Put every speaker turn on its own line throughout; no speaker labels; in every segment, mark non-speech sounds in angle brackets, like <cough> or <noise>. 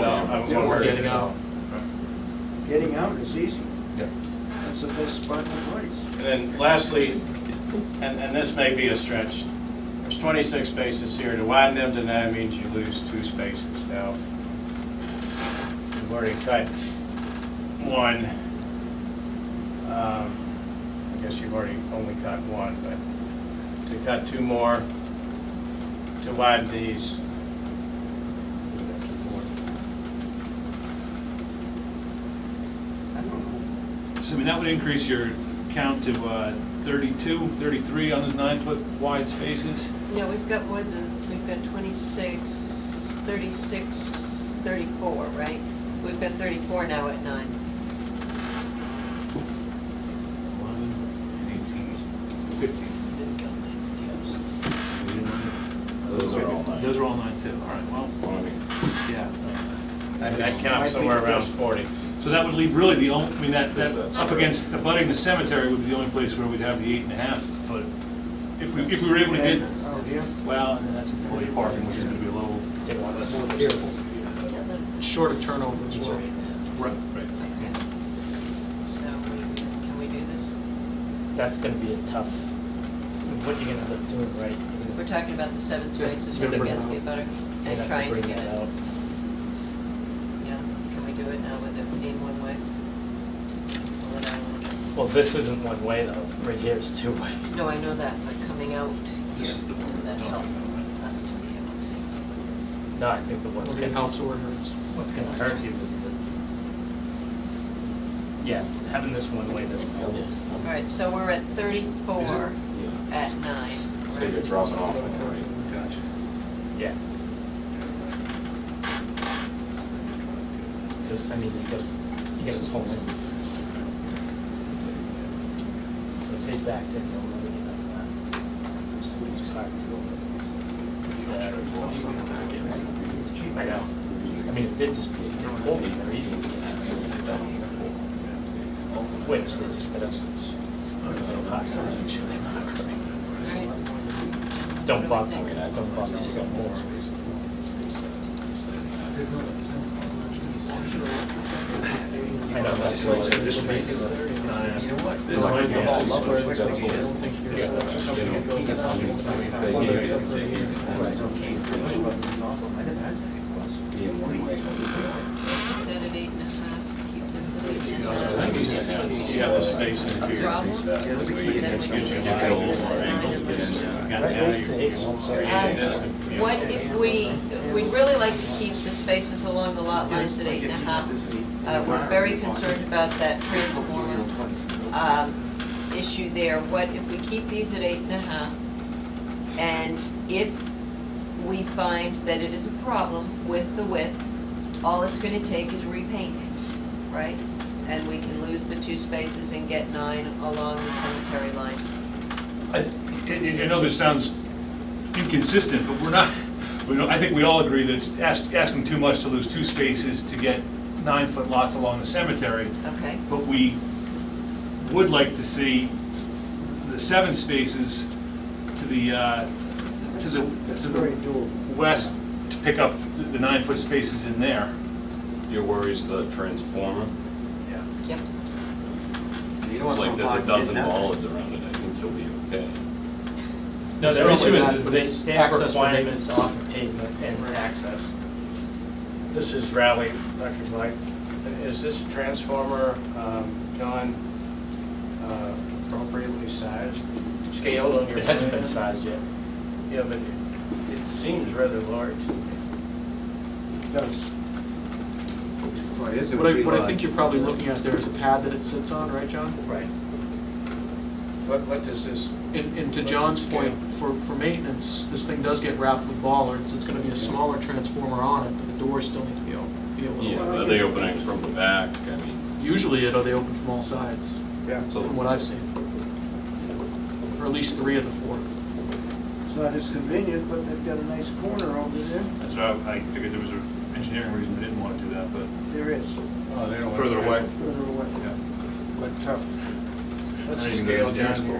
what we're
Getting
getting out.
Getting out is easy.
Yep.
That's the best spot in the place.
And then lastly, and, and this may be a stretch, there's 26 spaces here. To widen them to nine means you lose two spaces. Now, we've already cut one. Um, I guess you've already only cut one, but to cut two more, to widen these.
I don't know.
So, I mean, that would increase your count to uh, 32, 33 on those nine-foot wide spaces.
No, we've got more than, we've got 26, 36, 34, right? We've got 34 now at nine.
11, 18, 15.
Those are all nine.
Those are all nine, too. All right, well,
Well, I mean,
yeah.
That that counts somewhere around 40.
So that would leave really the only, I mean, that, that,
That's-
up against, abutting the cemetery would be the only place where we'd have the eight and a half foot. If we, if we were able to
And oh,
get,
Out here,
well, and that's employee parking, which is gonna be a little.
Short of turnover as well.
Right, right.
Okay. So we, can we do this?
That's gonna be a tough, what you're gonna end up doing, right? You're
We're
gonna-
talking about the seven spaces
Yeah,
up
bring it
against the
out.
butter
you're gonna have
and
to
trying to
bring
get it.
that out.
Yeah, can we do it now with it being one way? Pull it out a little bit.
Well, this isn't one way though, right here is two <laughs> way.
No, I know that, but coming out here,
This is the one
does
we're
that
talking
help
about,
us to be able to?
No, I think the one's
Whether it
gonna,
helps or hurts.
what's gonna hurt you is the, yeah, having this one way doesn't help.
All right, so we're at 34
yeah.
at nine.
So you're dropping off, right?
Gotcha.
Yeah, because, I mean, you gotta, you gotta pull it. Take back to, they'll never get out of that. Somebody's parked too. I know. I mean, if they just, if they pulled it, they're easy. Which, they just gotta, so park, make sure they park right.
All right.
Don't box, don't box yourself more. I know, that's what it's. This
This might be a
That's what it's-
Keep that at eight and a half, keep this at eight and a half.
You have the space in
A
here.
Problem? Then we can
you
just
a
try
little
this at nine and let's do it.
Got now you- you-
Um,
you-
What if we, we'd really like to keep the spaces along the lot lines at eight and a half. Uh, We're very concerned about that transformer um, issue there. What if we keep these at eight and a half? And if we find that it is a problem with the width, all it's gonna take is repainting, right? And we can lose the two spaces and get nine along the cemetery line.
I I- I know this sounds inconsistent, but we're not, we don't, I think we all agree that it's ask- asking too much to lose two spaces to get nine-foot lots along the cemetery,
Okay,
but we would like to see the seven spaces to the, uh, to the,
that's
to
very
the
doable.
west to pick up the- the nine-foot spaces in there.
Your worry's the transformer?
yep.
It's like there's a dozen bollards around it, I think you'll be okay.
No, their
It's
issue
not,
is,
but
is
it's
they, they have
access for
requirements
maintenance.
off of pavement and access.
This is Rally, Dr. Mike. Is this transformer, um, John, uh, appropriately sized, scaled on your?
It hasn't been
plan?
sized yet.
Yeah, but it- it seems rather large.
It does.
What I, what I think you're probably looking at there is a pad that it sits on, right, John?
Right.
What, what does this,
And, and to
What's
John's
its
point, for, for maintenance, this thing does get wrapped with bollards, it's gonna be a smaller transformer on it, but the doors still need to be open, be able to
Yeah,
open.
are they opening from the back? I mean,
Usually it, they open from all sides,
Yeah,
so
from what I've seen. Or at least three of the four.
it's not as convenient, but they've got a nice corner over there.
That's why I I figured there was an engineering reason they didn't want to do that, but
There is,
oh, they don't.
further away.
further away,
yeah.
but tough.
What's
I
the
didn't go
scale
to
down
Dan's
here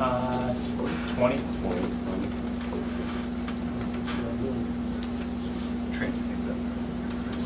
on
Uh, twenty?
Twenty,